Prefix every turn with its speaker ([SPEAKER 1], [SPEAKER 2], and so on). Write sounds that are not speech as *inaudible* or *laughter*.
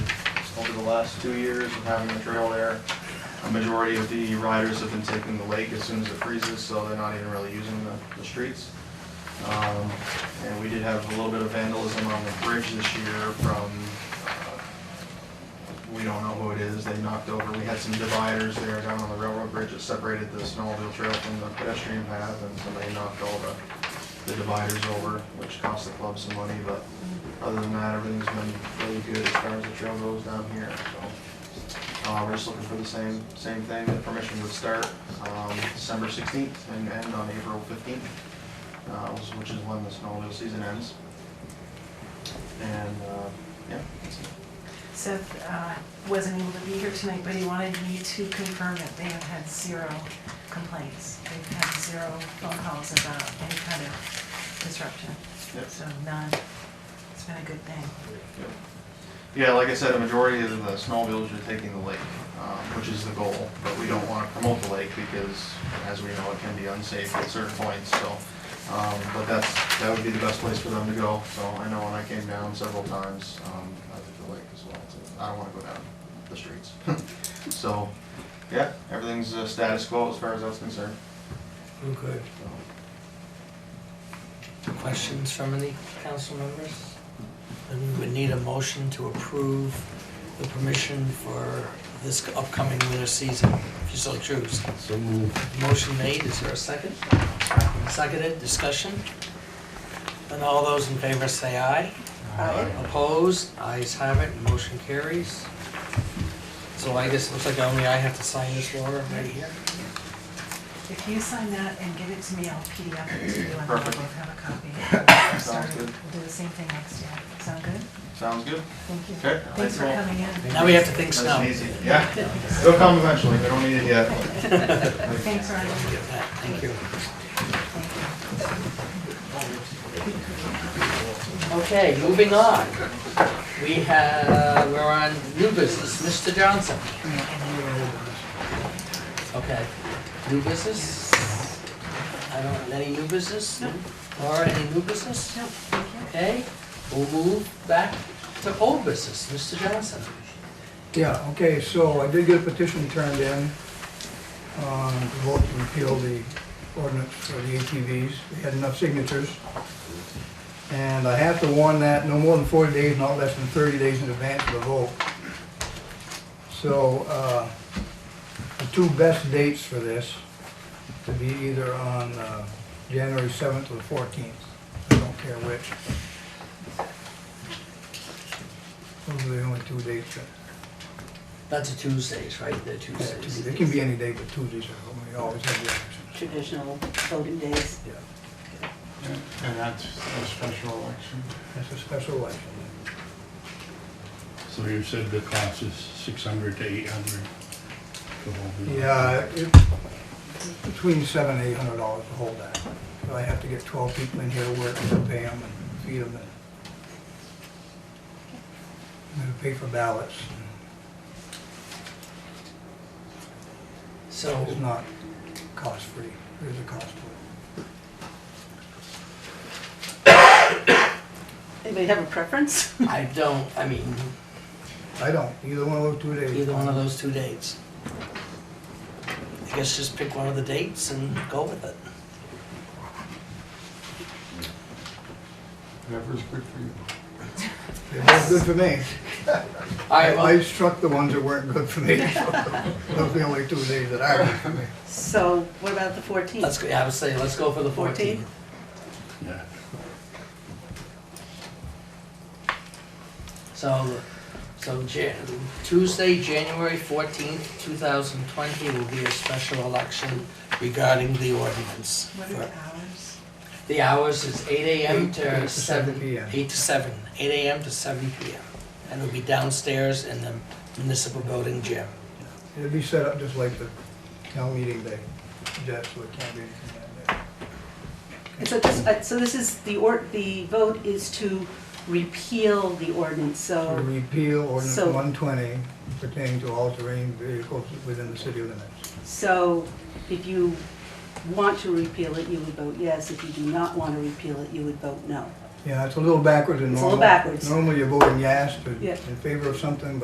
[SPEAKER 1] over the last two years of having the trail there. A majority of the riders have been taking the lake as soon as it freezes, so they're not even really using the, the streets. Um, And we did have a little bit of vandalism on the bridge this year from, uh, we don't know who it is, they knocked over, we had some dividers there down on the railroad bridge that separated the snowmobile trail from the pedestrian path, and somebody knocked all the, the dividers over, which cost the club some money, but other than that, everything's been really good as far as the trail goes down here, so. Uh, we're just looking for the same, same thing, the permission would start, um, December sixteenth and end on April fifteenth uh, which is when the snowmobile season ends. And, uh, yeah, that's it.
[SPEAKER 2] Seth uh, wasn't able to be here tonight, but he wanted me to confirm that they have had zero complaints. They've had zero phone calls about any kind of disruption.
[SPEAKER 1] Yep.
[SPEAKER 2] So none. It's been a good thing.
[SPEAKER 1] Yep. Yeah, like I said, a majority of the snowmobiles are taking the lake, um, which is the goal, but we don't want to promote the lake because, as we know, it can be unsafe at certain points, so. um, But that's, that would be the best place for them to go, so I know when I came down several times, um, I took the lake as well, so I don't want to go down the streets. *laughs* So, yeah, everything's uh, status quo as far as that's concerned,
[SPEAKER 3] Okay.
[SPEAKER 1] so.
[SPEAKER 3] Questions from any council members? And we need a motion to approve the permission for this upcoming winter season, if you so choose.
[SPEAKER 4] So moved.
[SPEAKER 3] Motion made, is there a second? Seconded, discussion? And all those in favor say aye.
[SPEAKER 2] Aye.
[SPEAKER 3] Opposed, ayes have it, motion carries. So I guess it looks like only I have to sign this, Laura, right here?
[SPEAKER 2] If you sign that and give it to me, I'll PDF it to you and we'll
[SPEAKER 1] Perfect.
[SPEAKER 2] both have a
[SPEAKER 1] *laughs*
[SPEAKER 2] copy. Sorry,
[SPEAKER 1] good.
[SPEAKER 2] We'll do the same thing next year. Sound good?
[SPEAKER 1] Sounds good.
[SPEAKER 2] Thank you.
[SPEAKER 1] Okay.
[SPEAKER 2] Thanks for coming in.
[SPEAKER 3] Now we have to think
[SPEAKER 1] Nice
[SPEAKER 3] snow.
[SPEAKER 1] and easy. Yeah, it'll come eventually, we don't need it yet.
[SPEAKER 2] Thanks, Ryan.
[SPEAKER 3] Get that, Thank you.
[SPEAKER 2] Thank you.
[SPEAKER 3] Okay, moving on. We have, we're on new business, Mr. Johnson. Okay, new business? I don't, any new business?
[SPEAKER 2] No.
[SPEAKER 3] Laura, any new business?
[SPEAKER 2] No, thank you.
[SPEAKER 3] Okay, we'll move back to old business, Mr. Johnson.
[SPEAKER 5] Yeah, okay, so I did get a petition turned in, um, to vote to repeal the ordinance for the ATVs. We had enough signatures. And I have to warn that no more than forty days, not less than thirty days in advance of the vote. So, uh, the two best dates for this to be either on, uh, January seventh or the fourteenth. I don't care which. Those are the only two dates that
[SPEAKER 3] That's a Tuesdays, right? They're Tuesdays.
[SPEAKER 5] it can be any day, but Tuesdays are, we always have the elections.
[SPEAKER 6] traditional voting days.
[SPEAKER 7] And that's a special election.
[SPEAKER 5] That's a special election.
[SPEAKER 4] So you said the cost is six hundred to eight hundred?
[SPEAKER 5] Yeah, it's between seven and eight hundred dollars to hold that. So I have to get twelve people in here to work, and pay them and feed them. And then pay for ballots.
[SPEAKER 3] So,
[SPEAKER 5] It's not cost-free. There's a cost to it.
[SPEAKER 6] Anybody have a preference? *laughs*
[SPEAKER 3] I don't, I mean,
[SPEAKER 5] I don't, either one of those two days.
[SPEAKER 3] either one of those two dates. I guess just pick one of the dates and go with it.
[SPEAKER 7] Whatever's good for you.
[SPEAKER 5] They're both good for me.
[SPEAKER 3] All right,
[SPEAKER 5] I
[SPEAKER 3] well-
[SPEAKER 5] I struck the ones that weren't good for me. *laughs* Those are the only two days that are good for me.
[SPEAKER 6] So what about the
[SPEAKER 3] Let's
[SPEAKER 6] 14th?
[SPEAKER 3] go, yeah, I would say, let's go for the fourteenth.
[SPEAKER 4] Yeah.
[SPEAKER 3] So, so Jan, Tuesday, January fourteenth, two thousand twenty will be a special election regarding the ordinance.
[SPEAKER 2] What are the hours?
[SPEAKER 3] The hours is eight AM
[SPEAKER 5] Eight
[SPEAKER 3] to
[SPEAKER 5] to
[SPEAKER 3] seven.
[SPEAKER 5] 7 p.m.
[SPEAKER 3] Eight to seven, eight AM to seven PM. And it'll be downstairs in the municipal building gym.
[SPEAKER 5] It'll be set up just like the town meeting day, just so it can't be anything like that.
[SPEAKER 6] And So this, uh, so this is, the or, the vote is to repeal the ordinance,
[SPEAKER 5] To
[SPEAKER 6] so,
[SPEAKER 5] repeal ordinance
[SPEAKER 6] Um, So-
[SPEAKER 5] one twenty pertaining to all terrain vehicles within the city limits.
[SPEAKER 6] so if you want to repeal it, you would vote yes. If you do not want to repeal it, you would vote no.
[SPEAKER 5] Yeah, it's a little backwards than
[SPEAKER 6] It's a
[SPEAKER 5] normal.
[SPEAKER 6] little backwards.
[SPEAKER 5] Normally you're voting yes to,
[SPEAKER 6] Yeah.
[SPEAKER 5] in favor of something, but